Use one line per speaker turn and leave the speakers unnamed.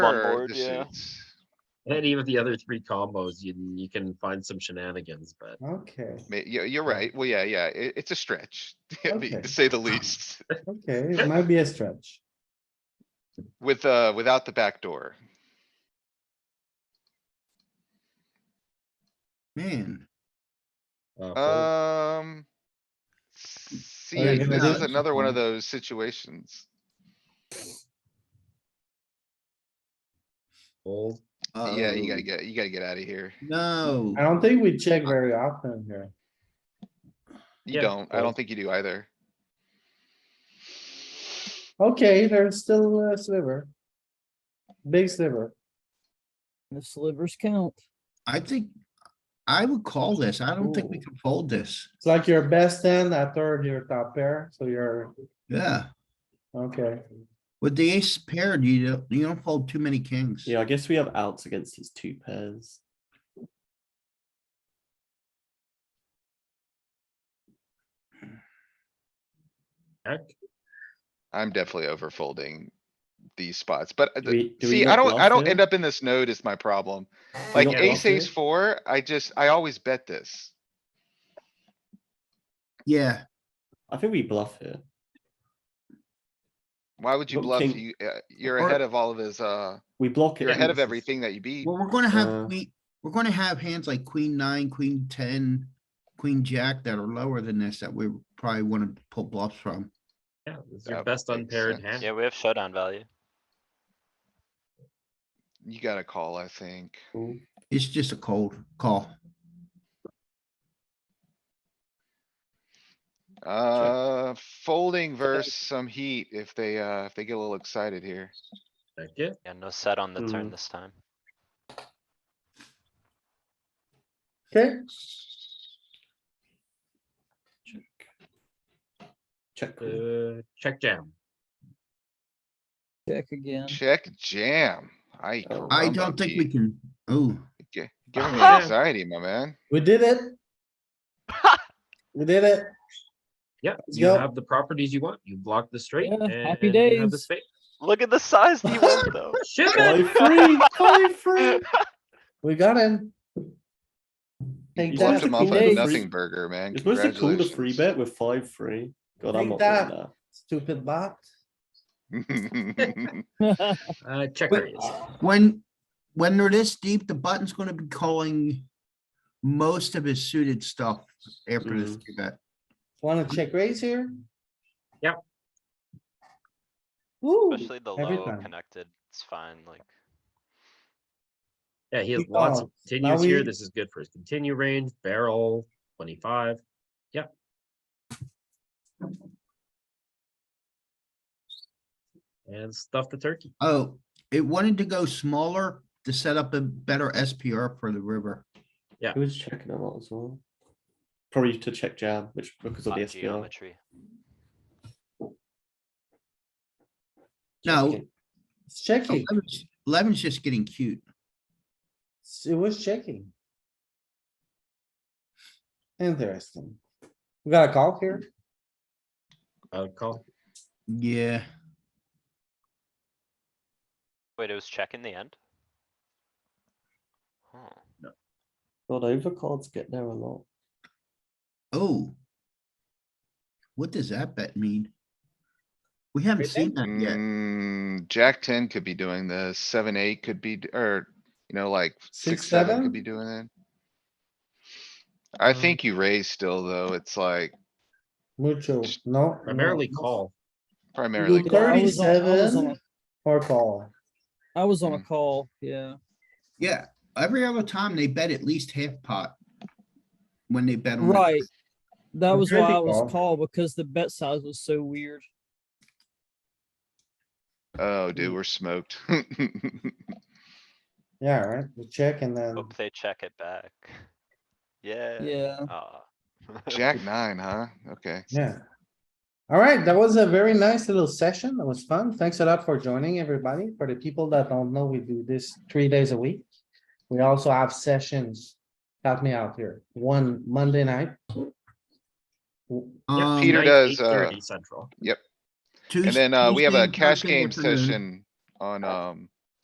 on
or
board,
the
yeah.
suits.
And even the other three combos, you, you can find some shenanigans, but
Okay,
May- Yeah, you're right. Well, yeah, yeah, it, it's a stretch, I mean,
Okay.
to say the least,
okay, it might be a stretch.
with, uh, without the back door.
Man,
uh, fold.
Um.
Are you
See,
gonna
this
do
is
it?
another one of those situations.
fold.
Yeah, you
Um,
Oh,
gotta get, you gotta get out of here.
No,
I don't think we check very often here.
You
Yeah,
don't, I
well-
don't think you do either.
Okay, there's still a sliver. Big sliver.
The slivers count.
I think I would call this. I don't think we
Ooh.
can fold this.
It's like your best hand, a third, your top pair, so you're,
Yeah,
okay.
with the ace paired, you don't, you don't fold too many kings.
Yeah, I guess we have outs against his two pairs.
Heck,
I'm definitely over folding these spots, but uh,
Do we- do we
see, I
not
don't, I
bluff
don't
here?
end up in this node is my problem.
We
Like
not
ace,
bluff here?
ace four, I just, I always bet this.
Yeah,
I think we bluff here.
Why would you
Look,
bluff?
king-
You, uh, you're
Or-
ahead of all of his, uh,
We block it.
you're ahead
and
of
this is-
everything that you beat.
well, we're gonna have,
Uh.
we, we're gonna have hands like queen nine, queen ten, queen jack that are lower than this that we probably wanna pull bluffs from.
yeah, it's
That
your best
makes
unpaired
sense.
hand.
Yeah, we have showdown value.
You gotta call, I think.
Cool.
It's just a cold call.
Uh, folding versus some heat if they, uh, if they get a little excited here.
Check it.
Yeah, no set on the turn
Mhm.
this time.
Okay,
Check. Check. call.
Uh, check jam.
Check again.
Check jam. I.
Oh.
I don't think we can, oh,
Giving me
Yeah.
anxiety, my man.
we did it. We did it.
Yeah,
Let's
you
go.
have the properties you want. You block the straight
Yeah,
and
happy
you have the
days.
spade.
Look at the size he went though.
Ship it.
Five free, five free.
We got him. Take
He's
Flipped
That's
him
a
that,
off
cool
like a
day.
nothing burger, man.
It's mostly cool to free
Congratulations.
bet with five free. God, I'm
Take
not doing
that.
that.
stupid bot.
Uh, check raise.
when, when they're this deep, the button's gonna be calling most of his suited stuff after this three bet.
Wanna check raise here?
Yep.
Woo,
Especially the
every
low
time.
connected, it's fine, like.
Yeah, he has
He
lots of
calls. Now
continues here.
we-
This is good for his continue range, barrel, twenty-five. Yeah. And stuff the turkey.
Oh, it wanted to go smaller to set up a better SPR for the river.
He was checking a lot as well. Probably to check jam, which because of
fine
the SPR.
Geometry.
No.
Checking.
it's checking.
Eleven's- Eleven's Oh, just getting cute.
It was checking. Interesting. We got a call here.
I would call.
Yeah,
Wait, it was check in the end? Huh.
God, overcards get there a lot.
oh. What does that bet mean? We haven't seen that yet.
Mm, Jack ten could be doing this, seven, eight could be, d- or, you know, like
Six,
six, seven
seven?
could be doing it. I
Mm.
think you raise still, though. It's like
Mucho, no.
Primarily
no.
call.
primarily.
do
call.
I was on- I was on
37. Or call.
I was on a
Mm.
call, yeah.
Yeah, every other time they bet at least half pot. When they bet on. the-
Right. That
I'm
was
sure
why
they
I was
call.
called because the bet size was so weird.
Oh, dude, we're smoked.
Yeah, right, we check and then,
Hope they check it back. Yeah.
Yeah.
Aw.
Jack nine, huh? Okay.
yeah. Alright, that was a very nice little session. That was fun. Thanks a lot for joining, everybody. For the people that don't know, we do this three days a week. We also have sessions. Help me out here. One Monday night. W-
Yeah,
Um,
Peter
night,
does, uh,
8:30 Central.
And then, uh, we have
Tuesday,
a cash
Thursday
game
afternoon.
session on, um,